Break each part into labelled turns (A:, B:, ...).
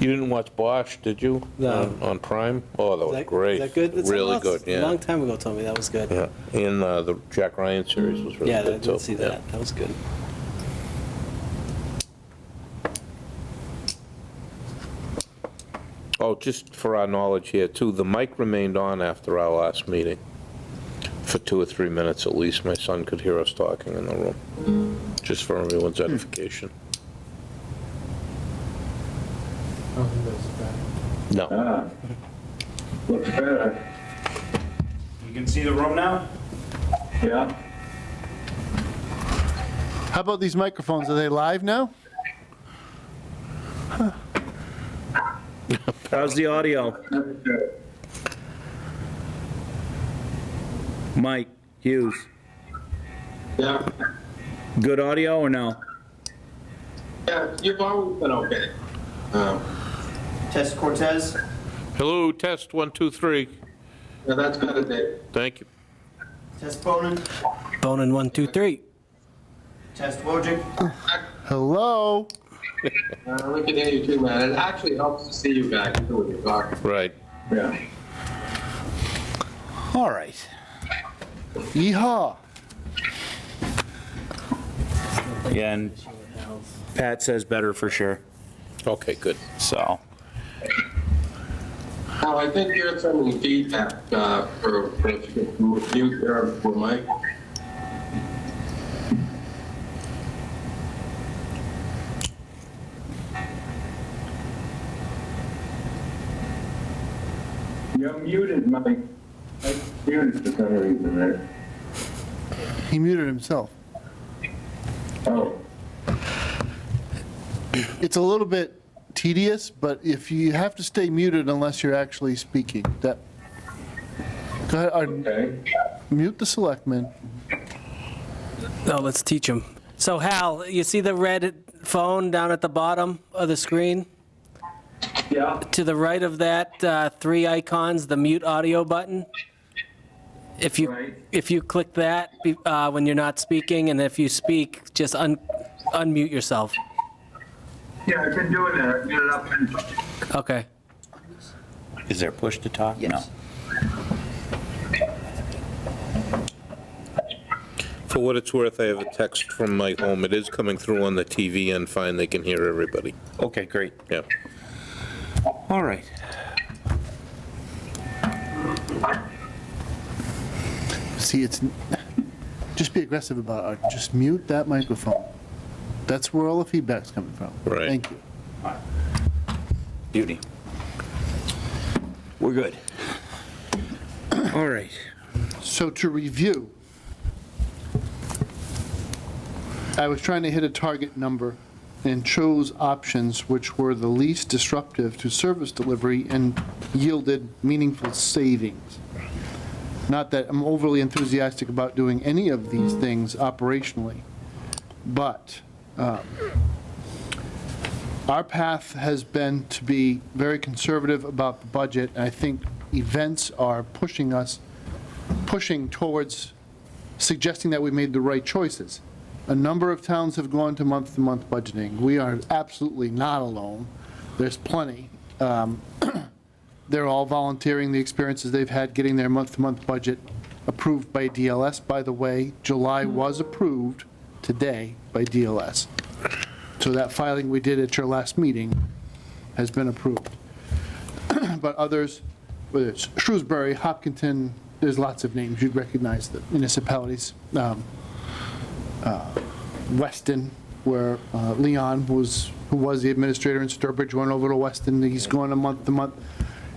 A: You didn't watch Bosch, did you?
B: No.
A: On- On Prime? Oh, that
B: Is
A: was
B: that-
A: great.
B: Is that good? It's a
A: Really
B: long-
A: good,
B: A long
A: yeah.
B: time ago told me that was good.
A: Yeah, and uh, the Jack Ryan series was really
B: Yeah, I
A: good, too.
B: didn't see
A: yeah.
B: that. That was good.
A: Oh, just for our knowledge here, too, the mic remained on after our last meeting for two or three minutes at least. My son could hear us talking in the room, just for everyone's edification. No,
C: Ah, Looks better,
D: You can see the room now?
C: yeah.
E: How about these microphones? Are they live now?
D: How's the audio?
C: That's good.
D: Mike Hughes,
C: Yeah,
D: good audio or no?
C: yeah, you've always been okay. Um,
F: Test Cortez.
A: hello, test, one, two, three.
C: Yeah, that's better, Dave.
A: Thank you.
F: Test Bonin.
B: Bonin, one, two, three.
F: Test Wojcik.
E: Hello?
C: Uh, We can hear you too, man. It actually helps to see you guys too when you talk.
A: Right.
C: Yeah.
E: All right. Yeehaw.
D: Yeah, and Pat says better for sure,
A: Okay, good.
D: so.
C: Now, I think you're sending feedback uh, for, for if you can mute your, uh, for Mike. You're muted, Mike. I muted for some reason there.
E: He muted himself.
C: Oh,
E: It's a little bit tedious, but if you have to stay muted unless you're actually speaking, that. Go ahead, Arden,
C: okay.
E: mute the selectmen.
B: No, Oh, let's teach him. So Hal, you see the red phone down at the bottom of the screen?
C: Yeah.
B: To the right of that, uh, three icons, the mute audio button. If you,
C: Right.
B: if you click that be- uh, when you're not speaking, and if you speak, just un unmute yourself.
C: Yeah, I've been doing that. Get it up and.
B: Okay.
D: Is there push to talk? No.
A: For what it's worth, I have a text from my home. It is coming through on the TV and fine, they can hear everybody.
D: Okay, great.
A: Yeah.
D: All right.
E: See, it's, just be aggressive about it, Arden. Just mute that microphone. That's where all the feedback's coming from.
A: Right.
E: Thank you.
D: Beauty. We're good. All right.
E: So to review, I was trying to hit a target number and chose options which were the least disruptive to service delivery and yielded meaningful savings. Not that I'm overly enthusiastic about doing any of these things operationally, but um, our path has been to be very conservative about the budget, and I think events are pushing us pushing towards suggesting that we made the right choices. A number of towns have gone to month-to-month budgeting. We are absolutely not alone. There's plenty. Um, They're all volunteering the experiences they've had getting their month-to-month budget approved by DLS. By the way, July was approved today by DLS. So that filing we did at your last meeting has been approved but others, whether it's Shrewsbury, Hopkinton, there's lots of names, you'd recognize the municipalities. Um, uh, Weston, where uh, Leon was, who was the administrator in Sturbridge, went over to Weston, he's going to month to month.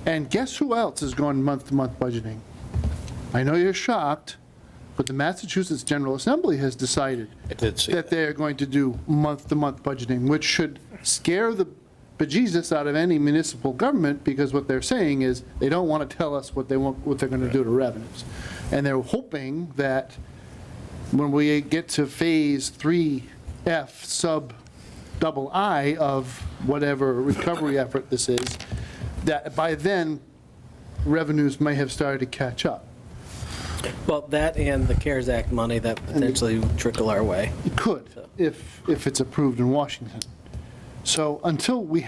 E: And guess who else is going month to month budgeting? I know you're shocked, but the Massachusetts General Assembly has decided
A: I did see
E: that
A: that.
E: they are going to do month-to-month budgeting, which should scare the bejesus out of any municipal government, because what they're saying is, they don't want to tell us what they want, what they're going to do to revenues. And they're hoping that when we get to phase three F sub double I of whatever recovery effort this is, that by then, revenues may have started to catch up.
B: Well, that and the CARES Act money that potentially trickle our way.
E: It could, if, if it's approved in Washington. So until we